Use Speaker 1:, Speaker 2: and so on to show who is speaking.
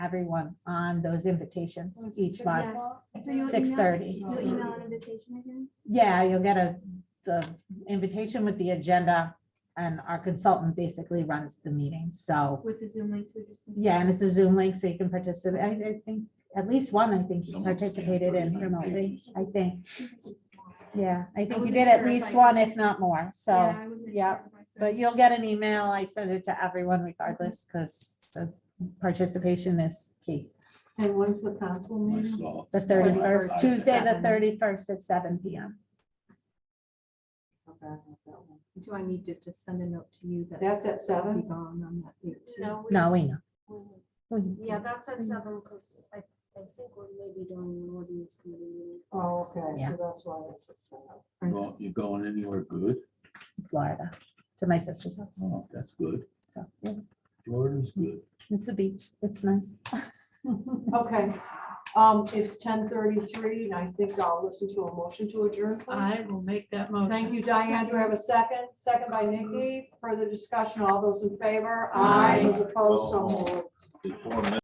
Speaker 1: everyone on those invitations each
Speaker 2: Six
Speaker 1: month.
Speaker 2: o'clock?
Speaker 3: So you'll
Speaker 1: Six
Speaker 3: email-
Speaker 1: thirty.
Speaker 3: You'll email an invitation again?
Speaker 1: Yeah, you'll get a, the invitation with the agenda and our consultant basically runs the meeting. So,
Speaker 3: With the Zoom link, we just.
Speaker 1: yeah, and it's a Zoom link so you can participate. I, I think at least one, I think
Speaker 4: Zoom, yeah,
Speaker 1: participated in
Speaker 4: 39
Speaker 1: remotely, I think. Yeah, I think you
Speaker 3: wasn't
Speaker 1: did at
Speaker 3: sure if
Speaker 1: least
Speaker 3: I-
Speaker 1: one, if not more. So,
Speaker 3: I wasn't
Speaker 1: yeah,
Speaker 3: sure if I could.
Speaker 1: but you'll get an email. I send it to everyone regardless because the participation is key.
Speaker 2: And when's the council
Speaker 4: I
Speaker 2: meeting?
Speaker 4: saw.
Speaker 1: The thirty-first,
Speaker 4: Twenty-first.
Speaker 1: Tuesday, the
Speaker 2: Seven.
Speaker 1: thirty-first at seven PM.
Speaker 5: Do I need to just send a note to you that
Speaker 2: That's at
Speaker 5: I'll be
Speaker 2: seven?
Speaker 5: gone on that date too?
Speaker 6: No. we-
Speaker 1: No, we know.
Speaker 6: we-
Speaker 1: We-
Speaker 6: Yeah, that's at seven, because I, I think we're maybe doing an ordinance committee meeting. at
Speaker 2: Oh,
Speaker 6: six.
Speaker 2: okay,
Speaker 1: Yeah.
Speaker 2: so that's why it's at seven.
Speaker 4: Well, You going anywhere good?
Speaker 1: Florida to my sister's house.
Speaker 4: Oh, that's good.
Speaker 1: So yeah,
Speaker 4: Florida's good.
Speaker 1: it's a beach. It's nice.
Speaker 2: Okay, um, it's ten thirty-three and I think I'll listen to a motion to adjourn, please.
Speaker 5: I will make that motion.
Speaker 2: Thank you, Diane. Do I have a second? Second by Nikki. Further discussion, all those in favor?
Speaker 5: Aye.
Speaker 2: Those opposed, so moved.
Speaker 4: Before